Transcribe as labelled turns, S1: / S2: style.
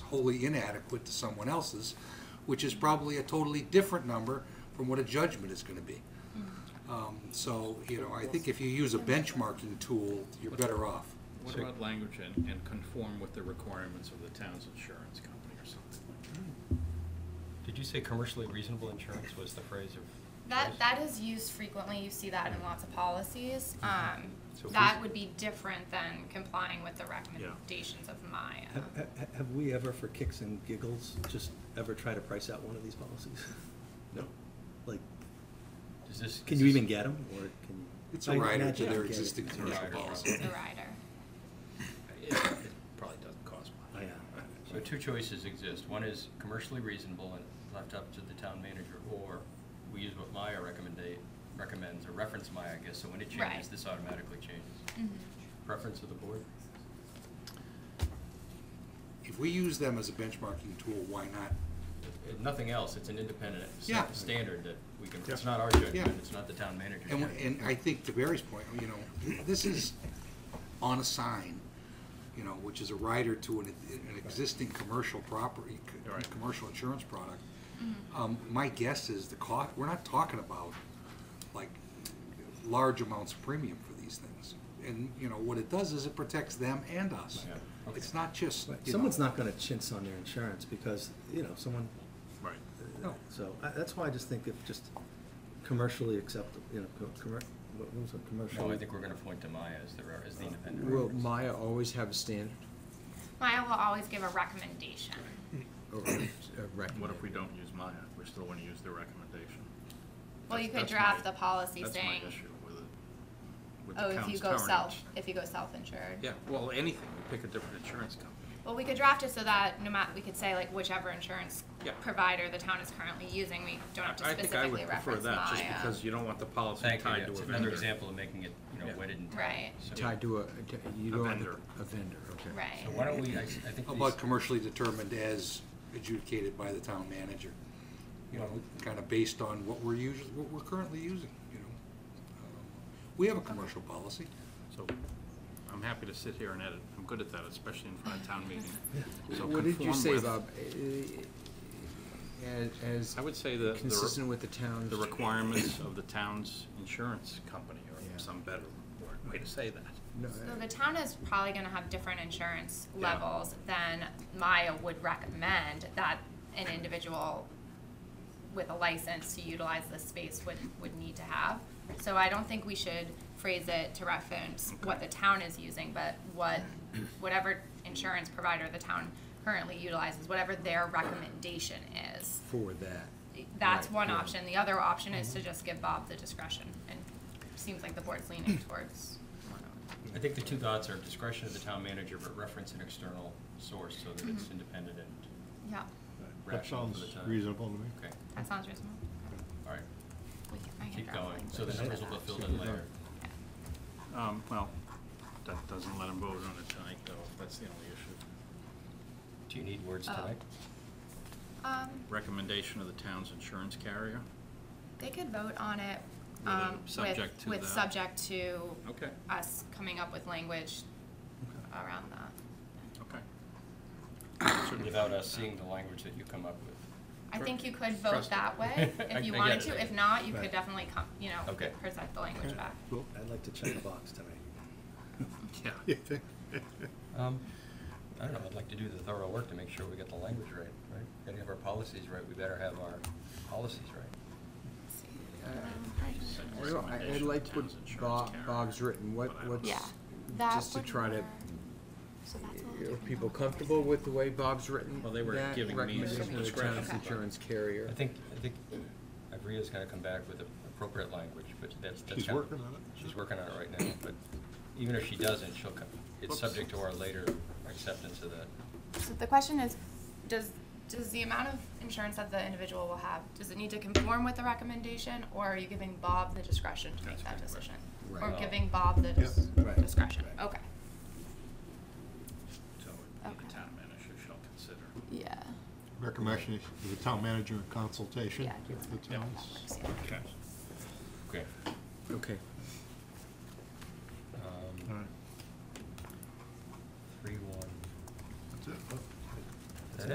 S1: wholly inadequate to someone else's, which is probably a totally different number from what a judgment is gonna be. Um, So, you know, I think if you use a benchmarking tool, you're better off.
S2: What
S3: So-
S2: about language and, and conform with the requirements of the town's insurance company or something like that?
S3: Did you say commercially reasonable insurance was the phrase of?
S4: That that is used frequently. You see that in lots of policies.
S2: Mm-hmm.
S4: Um,
S3: So if
S4: that
S3: we-
S4: would be different than complying with the recommendations of Maya.
S5: Have, have- have we ever, for kicks and giggles, just ever try to price out one of these policies? No. Like,
S3: Is this?
S5: can
S3: is
S5: you
S3: this-
S5: even get them, or can you?
S1: It's a
S5: I
S1: rider to
S5: imagine
S1: their
S5: you get it.
S1: existing
S5: It's a
S1: commercial
S5: rider.
S1: policy.
S4: the rider.
S2: It, it probably doesn't cost
S5: I,
S2: much.
S5: uh,
S3: So two choices exist. One is commercially reasonable and left up to the town manager, or we use what Maya recommendate, recommends, or reference Maya, I guess, so when it
S4: Right.
S3: changes, this automatically changes.
S4: Mhm.
S3: Preference of the board?
S1: If we use them as a benchmarking tool, why not?
S3: If nothing else, it's an independent sta-
S1: Yeah.
S3: standard that we can, it's
S2: Yeah.
S3: not our
S1: Yeah.
S3: judgment, it's not the town manager's
S1: And,
S3: judgment.
S1: we- and I think to Barry's point, you know, this is on a sign, you know, which is a rider to an, an existing commercial property, c-
S2: Right.
S1: commercial insurance product. Um, my guess is the cost, we're not talking about like large amounts of premium for these things. And, you know, what it does is it protects them and us.
S3: Yeah. Okay.
S1: It's not just,
S5: Right.
S1: you
S5: Someone's
S1: know,
S5: not gonna chintz on their insurance, because, you know, someone, uh,
S2: Right.
S1: No.
S5: so, I, that's why I just think if just commercially acceptable, you know, co- commer, what what was it, commercially?
S3: No, I think we're gonna point to Maya as the, re- as the independent.
S6: Will
S3: reference.
S6: Maya always have a standard
S4: Maya will always give a recommendation.
S2: Mm-hmm. Oh,
S6: or a recommend?
S2: What if we don't use Maya? We still wanna use their recommendation?
S4: Well, you could
S2: That's- that's
S4: draft
S2: my-
S4: the policy
S2: That's my
S4: saying,
S2: issue with it. with the
S4: "Oh, if you
S2: town's
S4: go
S2: coverage.
S4: self, if you go self-insured."
S2: Yeah, well, anything, we pick a different insurance company.
S4: Well, we could draft it so that no matter we could say like whichever insurance
S2: Yeah.
S4: provider the town is currently using, we don't have to
S2: I think I
S4: specifically
S2: would prefer
S4: reference uh, Maya.
S2: that, just because you don't want the policy
S3: Thank you, yeah,
S2: tied to a
S3: it's
S2: vendor.
S3: another example of making it, you know,
S2: Yeah.
S3: wedded and tied.
S4: Right.
S3: So-
S6: Tied to a, you
S2: A
S6: don't. want
S2: vendor.
S6: A vendor, okay.
S4: Right.
S3: So why don't we, I, I think
S1: how about
S3: these-
S1: commercially determined as adjudicated by the town manager. you know, kind of based on what we're usually, what we're currently using, you know. Um, We have a commercial policy.
S2: So, I'm happy to sit here and edit, I'm good at that, especially in front of town meeting. So
S6: What did you
S2: conform
S6: say,
S2: with-
S6: Bob? As, as
S2: I would say the. the re-
S6: consistent with the town's.
S2: The requirements of the town's insurance company,
S6: Yeah.
S2: or some better word- way to say that.
S6: No,
S4: So the town is probably gonna have different insurance
S2: Yeah.
S4: levels than Maya would recommend that an individual with a license to utilize this space would, would need to have. So I don't think we should phrase it to reference what the town is using, but what, whatever insurance provider the town currently utilizes, whatever their recommendation is.
S6: For that.
S4: That's
S6: Right,
S4: one
S6: yeah. Mm-hmm.
S4: option. The other option is to just give Bob the discretion, and seems like the board's leaning towards one of them.
S3: I think the two dots are discretion of the town manager, but reference an external source so that it's independent and
S4: Yeah,
S7: That
S3: rational for
S7: sounds
S3: the town.
S7: reasonable to me.
S3: Okay,
S4: that sounds reasonable.
S3: all right,
S4: We can- I can
S3: keep
S4: draft
S3: going,
S4: language
S3: so the
S4: for
S3: numbers will
S4: that.
S3: get filled in later.
S2: Um, well, that doesn't let them vote on it tonight, though, that's the only issue.
S3: Do you need words
S4: Oh.
S3: tonight?
S4: Um,
S2: Recommendation of the town's insurance carrier,
S4: they could vote on it,
S2: With a
S4: um,
S2: subject
S4: with,
S2: to
S4: with
S2: that.
S4: subject to
S2: okay,
S4: us coming up with language around that.
S2: okay.
S3: Without us seeing the language that you come up with.
S4: I
S2: Tr-
S4: think you could vote
S2: trust-
S4: that way,
S3: I-
S4: if you
S3: I
S4: wanted
S3: get it, I
S4: to,
S3: get
S4: if
S3: it.
S4: not, you could
S5: Right.
S4: definitely come, you know,
S3: Okay.
S4: present the language back.
S5: Well, I'd like to check a box tonight.
S2: Yeah.
S7: You think?
S3: Um, I don't know, I'd like to do the thorough work to make sure we get the language right, right? Gotta have our policies right, we better have our policies right.
S4: Let's see.
S6: Uh,
S4: Um,
S6: Well, I- I liked what Bob, Bob's written, what, what's,
S4: Yeah, that
S6: just to
S4: would
S6: try to,
S4: work. So that's what we'll do
S6: are
S4: for
S6: people
S4: now.
S6: comfortable with the way Bob's written?
S2: Well, they were
S6: that?
S2: giving me
S6: Recommendation of the
S2: discretion.
S6: town's
S4: Okay.
S6: insurance carrier.
S3: I think, I think Ivrea's gotta come back with the appropriate language, but that's, that's.
S7: She's
S3: how-
S7: working on it.
S3: She's working on it right now, but even if she doesn't, she'll come, it's subject to our later acceptance of that.
S4: So the question is, does, does the amount of insurance that the individual will have, does it need to conform with the recommendation, or are you giving Bob the discretion to make
S2: That's
S4: that
S2: right.
S4: decision?
S6: Right.
S4: Or giving Bob the dis-
S5: Yep. Right.
S4: discretion,
S5: Right.
S4: okay.
S2: So it would be
S4: Okay.
S2: the town manager shall consider.
S4: Yeah.
S7: Recommendation is the town manager in consultation
S4: Yeah.
S7: with the
S2: Yeah.
S7: towns.
S2: Okay.
S3: Okay.
S6: Okay.
S3: Um,